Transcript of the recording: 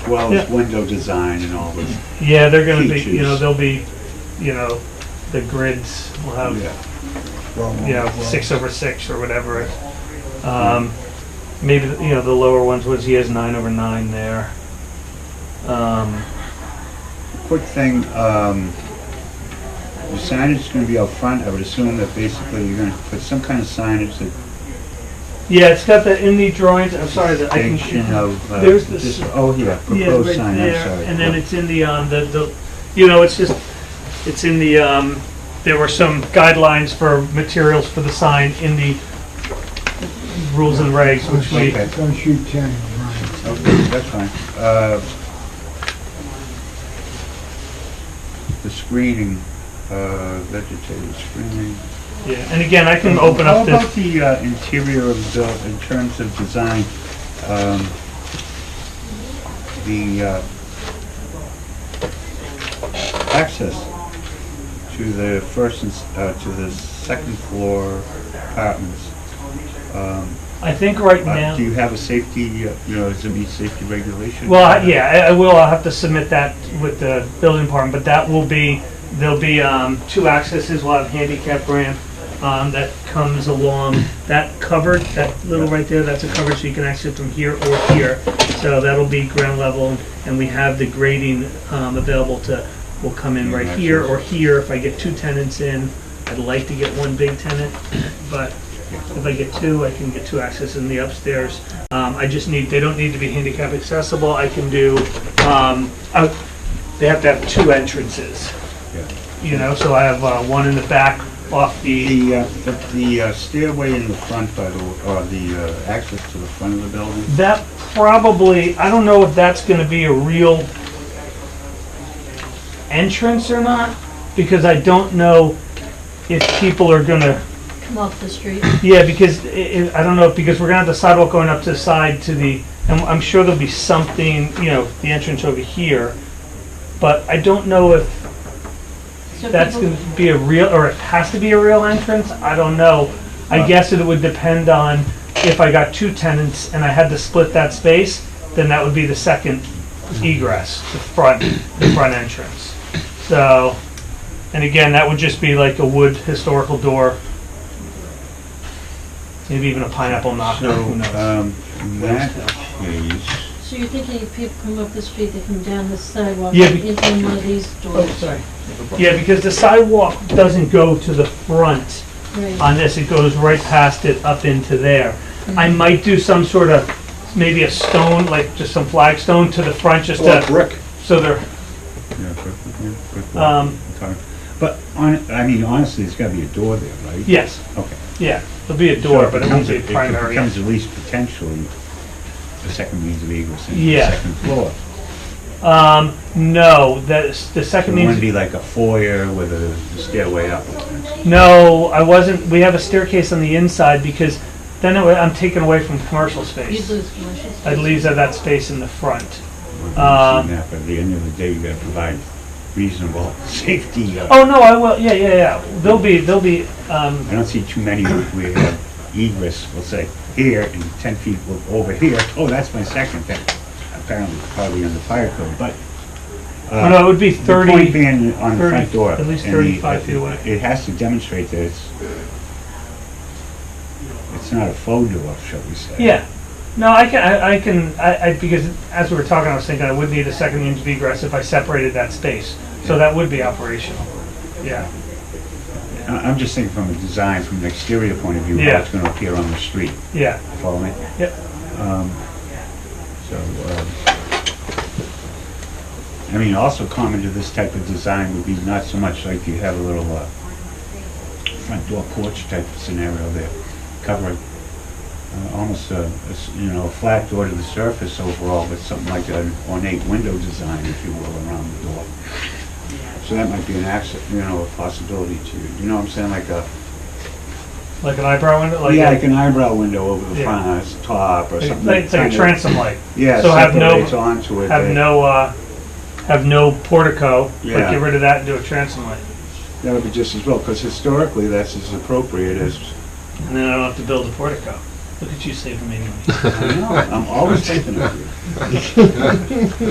as well as Yeah. window design and all this. Yeah, they're gonna be, you know, Features. they'll be, you know, the grids will have, Yeah, you know, six over six or whatever. Um, maybe, you know, the lower ones was, he has nine over nine there. Um, quick thing, um, the signage is gonna be out front, I would assume that basically you're gonna put some kind of signage that yeah, it's got that in the drawings, I'm sorry that I can. distinction of, uh, There's this- dis- oh, yeah, Yeah, proposed right sign, I'm there, sorry. And then it's in the, um, the, the, you know, it's just, it's in the, um, there were some guidelines for materials for the sign in the rules and regs, which we, Okay. Don't shoot ten, Brian. Okay, that's fine. Uh, The screening, uh, vegetative screening. yeah, and again, I can open up How this. about the uh, interior of the, in terms of design? um, The uh, access to the first, and s- uh, to the second floor apartments. um, I think right uh, Do now, you have a safety, uh, you know, does it meet safety regulation? well, I- yeah, I- I will, I'll have to submit that with the building department, but that will be, there'll be um, two accesses, we'll have handicap ramp um, that comes along, that covered, that little right there, that's a cover, so you can exit from here or here. So that'll be ground level, and we have the grading um, available to, will come in right here or here. If I get two tenants in, I'd like to get one big tenant, but If I get two, I can get two access in the upstairs. Um, I just need, they don't need to be handicap accessible, I can do, um, out- they have to have two entrances. Yeah. You know, so I have, uh, one in the back off the, The, uh, the- the uh, stairway in the front, by the, w- or the uh, access to the front of the building? that probably, I don't know if that's gonna be a real entrance or not, because I don't know if people are gonna come off the street. Yeah, because i i I don't know, because we're gonna have the sidewalk going up to the side to the, and I'm sure there'll be something, you know, the entrance over here. But I don't know if So that's people- gonna be a real, or it has to be a real entrance, I don't know. I guess it would depend on if I got two tenants and I had to split that space, then that would be the second egress, the front, the front entrance. So, and again, that would just be like a wood historical door. Maybe even a pineapple knocker, So, Ah, who knows? um, in that case, So you're thinking if people come up the street, they come down the sidewalk, Yeah, and be- Oh, into one of these doors, sorry. Yeah, because the sidewalk doesn't go to the front right? on this, it goes right past it up into there. I might do some sort of, maybe a stone, like just some flagstone to the front, just to, brick. so they're, Yeah, brick, yeah, brick wall, um, okay. But, hon- I mean, honestly, there's gotta be a door there, right? yes, Okay. yeah, there'll be a door, So but it won't becomes be a It primary. becomes at least potentially the second means of egress in the Yeah. second floor. Um, no, that's, the So second it wouldn't means, be like a foyer with a stairway up. no, I wasn't, we have a staircase on the inside because then it wa- I'm taken away from commercial You'd space. lose commercial space. I'd leave that- that space in the front. I've Um, seen that, But at the end of the day, you gotta provide reasonable safety. uh, Oh, no, I will, yeah, yeah, yeah, there'll be, there'll be, um, I don't see too many where egress will say here and ten feet o- over here. Oh, that's my second thing. Apparently probably on the fire code, but. oh, uh, no, it would be the thirty. Point being on the 30, front door. at least and the- 35 feet away. It has to demonstrate that it's, it's not a faux door, shall we say. Yeah. No, I can, I, I can, I, I, because as we were talking, I was thinking I would need a second means of egress if I separated that space. So that would be operational. Yeah. I- I'm just thinking from a design, from an exterior point of view, how Yeah. it's gonna appear on the street. Yeah. Follow me? Yep. Um, So, um, I mean, also common to this type of design would be not so much like you have a little uh, front door porch type of scenario there, covering uh, almost a, a s- you know, a flat door to the surface overall, but something like an ornate window design, if you will, around the door. So that might be an access, you know, a possibility to, you know what I'm saying, like a Like an eyebrow window, like, yeah, a- like an eyebrow window over the Yeah. front, uh, s- top or like, something. like- it's like kind a of- transom light. Yeah, so have no- separates onto it. Have that- no, uh, have no portico, but Yeah. get rid of that and do a transom light. That would be just as well, because historically, that's as appropriate as, And then I don't have to build a portico. Look at you saving me money. I know, I'm always thinking of you.